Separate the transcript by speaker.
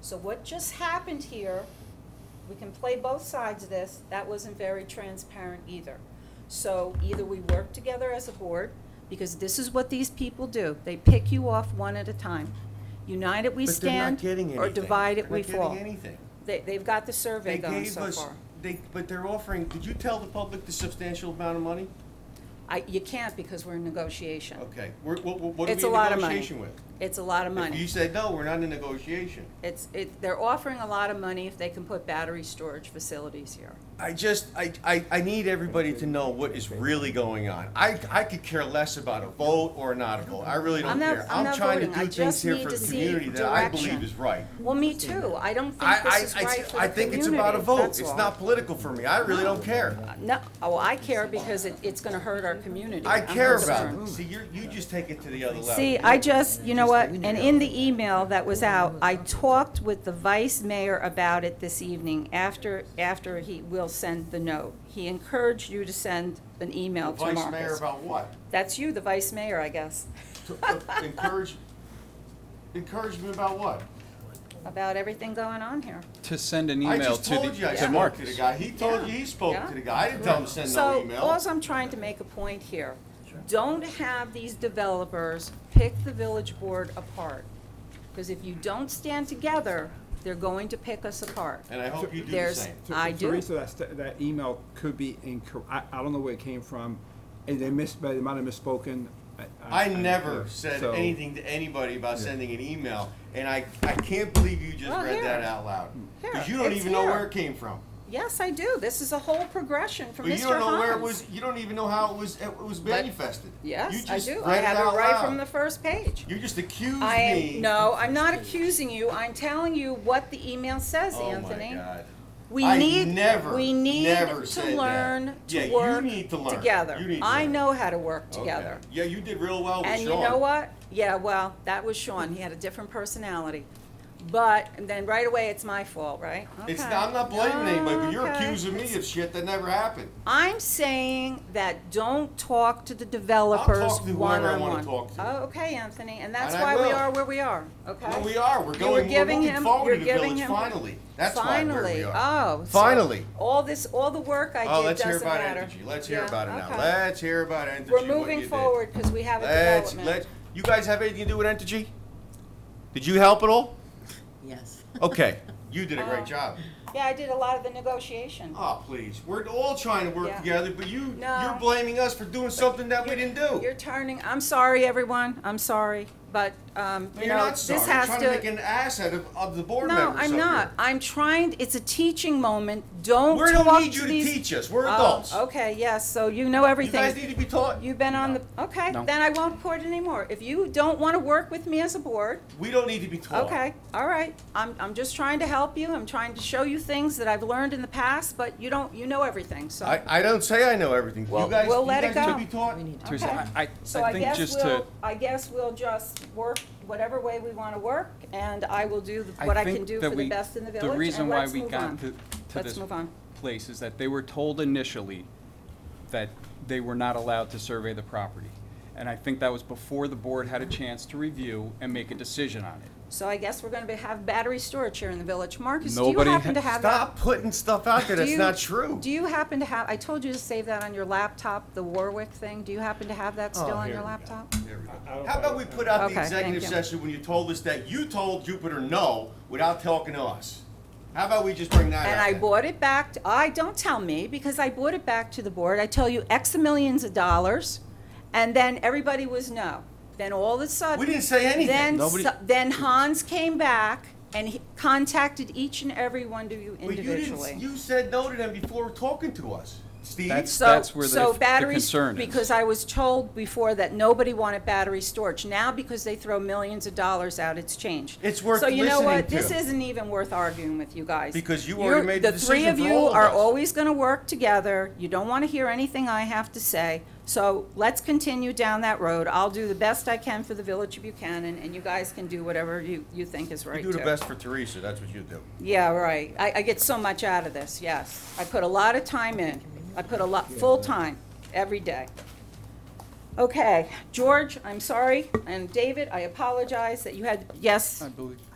Speaker 1: So what just happened here, we can play both sides of this, that wasn't very transparent either. So either we work together as a board, because this is what these people do, they pick you off one at a time. United we
Speaker 2: But they're not
Speaker 1: stand,
Speaker 2: getting
Speaker 1: or
Speaker 2: anything.
Speaker 1: divided we fall.
Speaker 2: They're not getting anything.
Speaker 1: They, they've got the survey
Speaker 2: They
Speaker 1: going
Speaker 2: gave
Speaker 1: so
Speaker 2: us,
Speaker 1: far.
Speaker 2: they, but they're offering, did you tell the public the substantial amount of money?
Speaker 1: I, you can't because we're in negotiation.
Speaker 2: Okay, we're, what, what are
Speaker 1: It's
Speaker 2: we
Speaker 1: a
Speaker 2: in
Speaker 1: lot of money.
Speaker 2: negotiation with?
Speaker 1: It's a lot of
Speaker 2: If you
Speaker 1: money.
Speaker 2: said, no, we're not in negotiation.
Speaker 1: It's, it, they're offering a lot of money if they can put battery storage facilities here.
Speaker 2: I just, I, I, I need everybody to know what is really going on. I, I could care less about a vote or not a vote, I really
Speaker 1: I'm
Speaker 2: don't
Speaker 1: not-
Speaker 2: care.
Speaker 1: I'm
Speaker 2: I'm
Speaker 1: not
Speaker 2: trying to
Speaker 1: voting. I
Speaker 2: do
Speaker 1: just
Speaker 2: things here
Speaker 1: need
Speaker 2: for
Speaker 1: to
Speaker 2: the
Speaker 1: see
Speaker 2: community that I
Speaker 1: direction.
Speaker 2: believe is right.
Speaker 1: Well, me too. I don't
Speaker 2: I,
Speaker 1: think
Speaker 2: I,
Speaker 1: this is
Speaker 2: I,
Speaker 1: right for the
Speaker 2: I think it's
Speaker 1: community,
Speaker 2: about a vote,
Speaker 1: that's
Speaker 2: it's
Speaker 1: all.
Speaker 2: not political for me, I really don't care.
Speaker 1: No, oh, I care because it, it's gonna hurt our community.
Speaker 2: I
Speaker 1: I'm
Speaker 2: care about
Speaker 1: concerned.
Speaker 2: it. See, you, you just take it to the other level.
Speaker 1: See, I just, you know what, and in the email that was out, I talked with the vice mayor about it this evening after, after he will send the note. He encouraged you to send an email to
Speaker 2: Vice mayor
Speaker 1: Marcus.
Speaker 2: about what?
Speaker 1: That's you, the vice mayor, I guess,
Speaker 2: To- uh, Encourage, encourage me about what?
Speaker 1: about everything going on here.
Speaker 3: to send an
Speaker 2: I
Speaker 3: email
Speaker 2: just
Speaker 3: to the,
Speaker 2: told you I
Speaker 3: to
Speaker 2: spoke to the
Speaker 3: Marcus.
Speaker 2: guy. He told you
Speaker 1: Yeah.
Speaker 2: he spoke
Speaker 1: Yeah.
Speaker 2: to the guy. I didn't tell him to send no
Speaker 1: So,
Speaker 2: email.
Speaker 1: alls I'm trying to make a point here, don't have these developers pick the village board apart. Because if you don't stand together, they're going to pick us apart.
Speaker 2: And I hope you do the
Speaker 1: There's-
Speaker 2: same.
Speaker 4: So-
Speaker 1: I
Speaker 4: so
Speaker 1: do.
Speaker 4: Teresa, that, st- that email could be incorrect. I, I don't know where it came from, and they missed, but they might have misspoken.
Speaker 2: I never said
Speaker 4: so-
Speaker 2: anything to anybody about sending an email, and I, I can't believe you just
Speaker 1: Well,
Speaker 2: read that
Speaker 1: here.
Speaker 2: out loud. Because
Speaker 1: Here,
Speaker 2: you don't
Speaker 1: it's
Speaker 2: even know where
Speaker 1: here.
Speaker 2: it came from.
Speaker 1: Yes, I do. This is a whole progression from
Speaker 2: But
Speaker 1: Mr.
Speaker 2: you don't know where it
Speaker 1: Hans.
Speaker 2: was, you don't even know how it was, it was manifested. You
Speaker 1: Yes, I
Speaker 2: just
Speaker 1: do. I
Speaker 2: read
Speaker 1: have
Speaker 2: out
Speaker 1: it right
Speaker 2: loud.
Speaker 1: from the first page.
Speaker 2: You just accused
Speaker 1: I
Speaker 2: me.
Speaker 1: am, no, I'm not accusing you. I'm telling you what the email says,
Speaker 2: Oh my
Speaker 1: Anthony.
Speaker 2: God.
Speaker 1: We
Speaker 2: I
Speaker 1: need,
Speaker 2: never,
Speaker 1: we need
Speaker 2: never
Speaker 1: to
Speaker 2: said that.
Speaker 1: learn
Speaker 2: Yeah,
Speaker 1: to
Speaker 2: you
Speaker 1: work
Speaker 2: need to learn. You
Speaker 1: together.
Speaker 2: need to
Speaker 1: I
Speaker 2: learn.
Speaker 1: know how to work
Speaker 2: Okay.
Speaker 1: together.
Speaker 2: Yeah, you did real well with
Speaker 1: And you
Speaker 2: Oh, Sean.
Speaker 1: know what? Yeah, well, that was Sean. He had a different personality. But, and then right away, it's my fault, right?
Speaker 2: It's
Speaker 1: Okay.
Speaker 2: not, I'm not blaming anybody, but you're
Speaker 1: Okay.
Speaker 2: accusing me of shit that never happened.
Speaker 1: I'm saying that don't talk to the
Speaker 2: I'll
Speaker 1: developers
Speaker 2: talk to
Speaker 1: one
Speaker 2: whoever I
Speaker 1: on
Speaker 2: wanna
Speaker 1: one.
Speaker 2: talk to.
Speaker 1: Oh, okay, Anthony, and that's
Speaker 2: And I
Speaker 1: why we
Speaker 2: will.
Speaker 1: are where we are, okay?
Speaker 2: No, we are. We're
Speaker 1: You were
Speaker 2: going. We're
Speaker 1: giving
Speaker 2: moving
Speaker 1: him,
Speaker 2: forward
Speaker 1: you're
Speaker 2: to the
Speaker 1: giving
Speaker 2: village
Speaker 1: him.
Speaker 2: finally. That's why we're where we
Speaker 1: Finally,
Speaker 2: are.
Speaker 1: oh. so
Speaker 2: Finally.
Speaker 1: All this, all the work I
Speaker 2: Oh,
Speaker 1: did
Speaker 2: let's hear
Speaker 1: doesn't
Speaker 2: about
Speaker 1: matter.
Speaker 2: Entergy. Let's hear
Speaker 1: Yeah,
Speaker 2: about it now.
Speaker 1: okay.
Speaker 2: Let's hear about Entergy.
Speaker 1: We're
Speaker 2: what
Speaker 1: moving
Speaker 2: you did.
Speaker 1: forward because we have a
Speaker 2: Let's let.
Speaker 1: development.
Speaker 2: You guys have anything to do with Entergy? Did you help at all?
Speaker 5: Yes.
Speaker 2: Okay. you did a great
Speaker 1: Oh.
Speaker 2: job.
Speaker 1: Yeah, I did a lot of the negotiation.
Speaker 2: Oh please, we're all trying to work
Speaker 1: Yeah.
Speaker 2: together, but you
Speaker 1: No.
Speaker 2: you're blaming us for doing something that we
Speaker 1: You're-
Speaker 2: didn't do.
Speaker 1: You're turning, I'm sorry, everyone, I'm sorry, but, um,
Speaker 2: No,
Speaker 1: you
Speaker 2: you're
Speaker 1: know,
Speaker 2: not
Speaker 1: this
Speaker 2: sorry.
Speaker 1: has to.
Speaker 2: you're trying to, make an ass out of, of the board
Speaker 1: No,
Speaker 2: members. up
Speaker 1: I'm
Speaker 2: here.
Speaker 1: not. I'm trying, it's a teaching moment. Don't
Speaker 2: We
Speaker 1: talk
Speaker 2: don't need you to
Speaker 1: these-
Speaker 2: teach us. We're
Speaker 1: Oh,
Speaker 2: adults.
Speaker 1: Okay, yes, so you know
Speaker 2: You guys need
Speaker 1: everything.
Speaker 2: to be taught.
Speaker 1: You've been on the, okay,
Speaker 3: No.
Speaker 1: then I won't court anymore. If you don't want to work with me as a board,
Speaker 2: we don't need to be taught.
Speaker 1: okay, all right. I'm, I'm just trying to help you. I'm trying to show you things that I've learned in the past, but you don't, you know everything, so.
Speaker 2: I, I don't say I know everything.
Speaker 1: Well,
Speaker 2: you guys,
Speaker 1: we'll
Speaker 2: you
Speaker 1: let it
Speaker 2: guys need
Speaker 1: go.
Speaker 2: to be taught.
Speaker 5: We need to.
Speaker 3: Teresa, I, I,
Speaker 1: So
Speaker 3: I
Speaker 1: I
Speaker 3: think
Speaker 1: guess
Speaker 3: just to,
Speaker 1: we'll, I guess we'll just work whatever way we want to work, and I will do the-
Speaker 3: I
Speaker 1: what I
Speaker 3: think
Speaker 1: can do
Speaker 3: that
Speaker 1: for the
Speaker 3: we-
Speaker 1: best in the village,
Speaker 3: reason
Speaker 1: and
Speaker 3: why
Speaker 1: let's
Speaker 3: we
Speaker 1: move
Speaker 3: got to,
Speaker 1: on.
Speaker 3: to
Speaker 1: Let's
Speaker 3: this
Speaker 1: move on.
Speaker 3: place is that they were told initially that they were not allowed to survey the property. And I think that was before the board had a chance to review and make a decision on it.
Speaker 1: So I guess we're gonna be, have battery storage here in the village. Marcus, do you
Speaker 3: Nobody
Speaker 1: happen to
Speaker 3: ha-
Speaker 1: have that?
Speaker 2: Stop putting stuff out there
Speaker 1: Do
Speaker 2: that's
Speaker 1: you-
Speaker 2: not true.
Speaker 1: Do you happen to have, I told you to save that on your laptop, the Warwick thing. Do you happen to have
Speaker 2: Oh,
Speaker 1: that still on your laptop?
Speaker 2: How about we put out the
Speaker 1: Okay, thank
Speaker 2: executive
Speaker 1: you.
Speaker 2: session when you told us that you told Jupiter no without talking to us? How about we just bring that
Speaker 1: And
Speaker 2: out
Speaker 1: I
Speaker 2: then?
Speaker 1: bought it back, to- I, don't tell me, because I bought it back to the board. I tell you X millions of dollars, and then everybody was no. Then all of a sudden.
Speaker 2: We didn't say anything.
Speaker 1: Then,
Speaker 3: Nobody-
Speaker 1: so- then Hans came back and he contacted each and every one of you
Speaker 2: But you
Speaker 1: individually.
Speaker 2: didn't. You said no to them before talking to us, Steve.
Speaker 3: That's-
Speaker 1: So,
Speaker 3: where the-
Speaker 1: so
Speaker 3: the
Speaker 1: batteries-
Speaker 3: concern is.
Speaker 1: Because I was told before that nobody wanted battery storage. Now, because they throw millions of dollars out, it's changed.
Speaker 2: It's worth
Speaker 1: So you know
Speaker 2: listening
Speaker 1: what?
Speaker 2: to.
Speaker 1: This isn't even worth arguing with you guys.
Speaker 2: Because you
Speaker 1: You're-
Speaker 2: already made the decision for
Speaker 1: three of
Speaker 2: all
Speaker 1: you
Speaker 2: of
Speaker 1: are
Speaker 2: us.
Speaker 1: always going to work together. You don't want to hear anything I have to say. So let's continue down that road. I'll do the best I can for the Village of Buchanan, and you guys can do whatever you, you think is right
Speaker 2: you do the
Speaker 1: too.
Speaker 2: best for Teresa. That's what you do.
Speaker 1: Yeah, right. I, I get so much out of this, yes. I put a lot of time in. I put a lot, full-time, every day. Okay, George, I'm sorry, and David, I apologize that you had, yes,
Speaker 3: I believe,